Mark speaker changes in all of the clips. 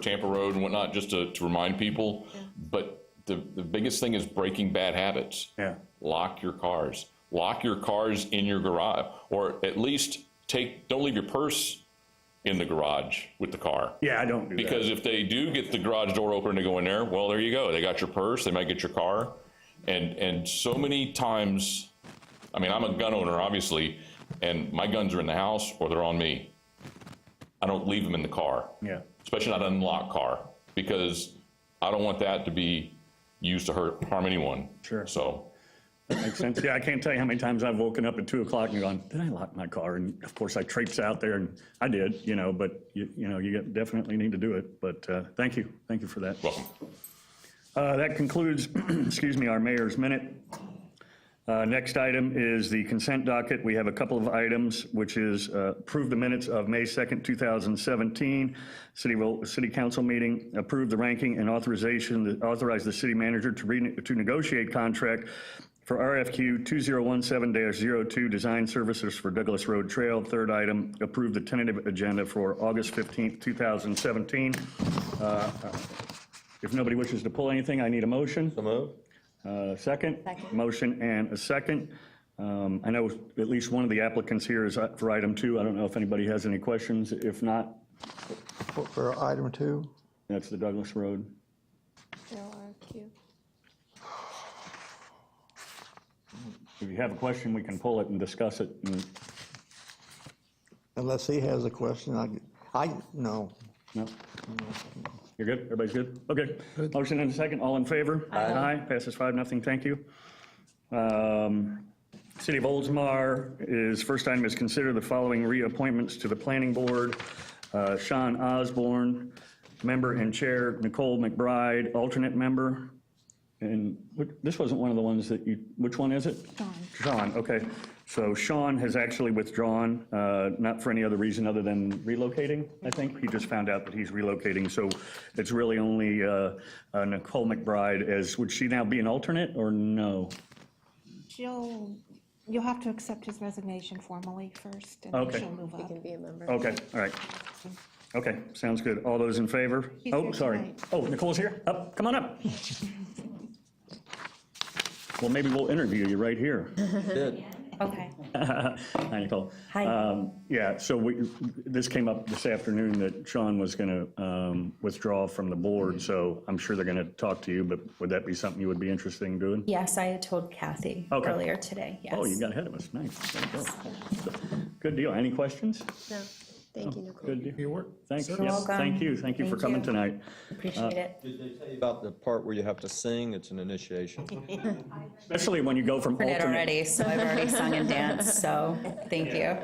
Speaker 1: Tampa Road and whatnot, just to, to remind people. But the, the biggest thing is breaking bad habits.
Speaker 2: Yeah.
Speaker 1: Lock your cars. Lock your cars in your garage, or at least take, don't leave your purse in the garage with the car.
Speaker 2: Yeah, I don't do that.
Speaker 1: Because if they do get the garage door open and they go in there, well, there you go. They got your purse. They might get your car. And and so many times, I mean, I'm a gun owner, obviously, and my guns are in the house or they're on me. I don't leave them in the car.
Speaker 2: Yeah.
Speaker 1: Especially not an unlocked car because I don't want that to be used to hurt harm anyone.
Speaker 2: Sure.
Speaker 1: So
Speaker 2: Makes sense. Yeah, I can't tell you how many times I've woken up at two o'clock and gone, did I lock my car? And of course, I traipse out there and I did, you know, but you, you know, you definitely need to do it. But, uh, thank you. Thank you for that.
Speaker 1: welcome.
Speaker 2: Uh, That concludes, excuse me, our mayor's minute. Uh, Next item is the consent docket. We have a couple of items, which is uh, approve the minutes of May 2nd, 2017, city, will- city council meeting, approve the ranking and authorization, authorize the city manager to re, to negotiate contract for RFQ 2017-02, design services for Douglas Road Trail. Third item, approve the tentative agenda for August 15th, 2017. Uh, If nobody wishes to pull anything, I need a motion. So Uh, Second?
Speaker 3: Second.
Speaker 2: Motion and a second. Um, I know at least one of the applicants here is up for item two. I don't know if anybody has any questions. If not,
Speaker 4: For- For item two,
Speaker 2: that's the Douglas Road.
Speaker 3: LRQ.
Speaker 2: If you have a question, we can pull it and discuss it. and-
Speaker 4: unless he has a question, I, I, no.
Speaker 2: no? You're good? Everybody's good? Okay. Motion and a second. All in favor? Aye. Passes five, nothing. Thank you. Um, City of Oldsmar is, first item is consider the following reappointments to the planning board. Uh, Sean Osborne, member and chair, Nicole McBride, alternate member. And what- this wasn't one of the ones that you, which one is it? Sean. Sean, okay. So Sean has actually withdrawn, uh, not for any other reason other than relocating, I think. He just found out that he's relocating, so it's really only uh, uh, Nicole McBride as, would she now be an alternate or no?
Speaker 5: She'll, you'll have to accept his resignation formally first, and
Speaker 2: Okay.
Speaker 5: then she'll move
Speaker 3: He
Speaker 5: up.
Speaker 3: can be a member.
Speaker 2: Okay, all right. Okay, sounds good. All those in favor?
Speaker 5: She's
Speaker 2: Oh,
Speaker 5: here
Speaker 2: sorry.
Speaker 5: tonight.
Speaker 2: Oh, Nicole's here? Up, come on up. Well, maybe we'll interview you right here.
Speaker 5: Okay.
Speaker 2: Hi, Nicole.
Speaker 5: Hi.
Speaker 2: Um, Yeah, so we, this came up this afternoon that Sean was going to withdraw from the board, so I'm sure they're going to talk to you, but would that be something you would be interested in doing?
Speaker 6: Yes, I had told Kathy
Speaker 2: Okay.
Speaker 6: earlier today, yes.
Speaker 2: Oh, you got ahead of us, nice. There you go. Good deal. Any questions? Oh,
Speaker 3: No, thank you, Nicole.
Speaker 2: Good deal.
Speaker 7: work.
Speaker 2: Thanks,
Speaker 6: You're
Speaker 2: yes,
Speaker 6: welcome.
Speaker 2: thank you, thank you for
Speaker 6: Thank
Speaker 2: coming
Speaker 6: you.
Speaker 2: tonight.
Speaker 6: Appreciate
Speaker 2: uh,
Speaker 6: it.
Speaker 7: Did they tell you about the part where you have to sing? It's an initiation.
Speaker 2: Especially when you go from
Speaker 6: Heard it
Speaker 2: alternate,
Speaker 6: already, so I've already sung and danced, so thank you.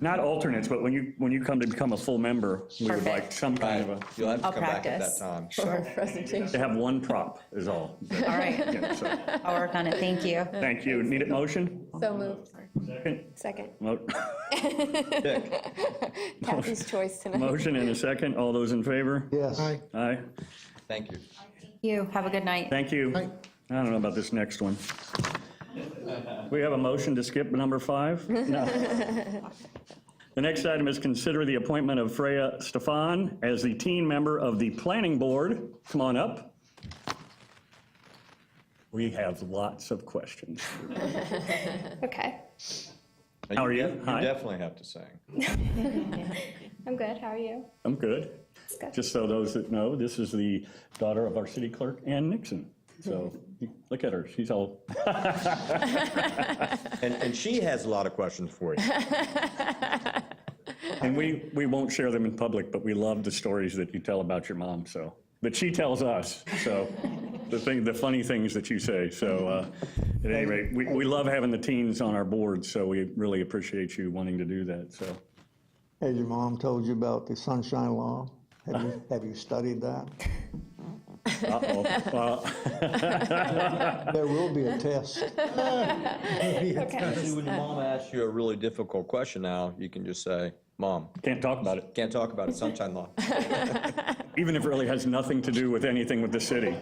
Speaker 2: not alternates, but when you, when you come to become a full member, we would like
Speaker 6: Perfect.
Speaker 2: some kind of a,
Speaker 7: You'll have to
Speaker 6: I'll
Speaker 7: come back at
Speaker 6: practice.
Speaker 7: that time.
Speaker 6: Sure.
Speaker 2: to have one prop is all.
Speaker 6: All right,
Speaker 2: Yeah, so,
Speaker 6: I'll work on it, thank you.
Speaker 2: Thank you. Need a motion?
Speaker 3: So moved.
Speaker 2: Second?
Speaker 3: Second.
Speaker 2: Mo-
Speaker 3: Kathy's choice tonight.
Speaker 2: Motion and a second. All those in favor?
Speaker 4: Yes.
Speaker 2: Aye.
Speaker 7: Thank you.
Speaker 6: You, have a good night.
Speaker 2: Thank you. I don't know about this next one. We have a motion to skip number five? No. The next item is consider the appointment of Freya Stefan as the teen member of the Planning Board. Come on up. We have lots of questions.
Speaker 8: Okay,
Speaker 7: Now,
Speaker 2: How are you?
Speaker 7: de-
Speaker 2: Hi.
Speaker 7: You definitely have to sing.
Speaker 8: I'm good. How are you?
Speaker 2: I'm good. Just so those that know, this is the daughter of our city clerk, Ann Nixon. So look at her, she's all,
Speaker 7: And, and she has a lot of questions for you.
Speaker 2: and we, we won't share them in public, but we love the stories that you tell about your mom, so. But she tells us, so, the thing, the funny things that you say, so, uh, at any rate, we, we love having the teens on our board, so we really appreciate you wanting to do that, so.
Speaker 4: Has your mom told you about the sunshine law? Have you, have you studied that?
Speaker 2: Uh-oh. Well,
Speaker 4: There will be a test.
Speaker 7: See, When your mom asks you a really difficult question now, you can just say, Mom,
Speaker 2: Can't talk about it,
Speaker 7: can't talk about it, sunshine law.
Speaker 2: even if it really has nothing to do with anything with the city.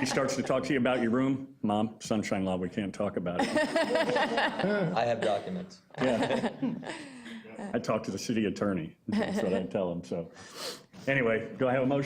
Speaker 2: She starts to talk to you about your room, Mom, sunshine law, we can't talk about it.
Speaker 7: I have documents.
Speaker 2: Yeah. I talk to the city attorney, that's what I tell him, so. Anyway, do I have a motion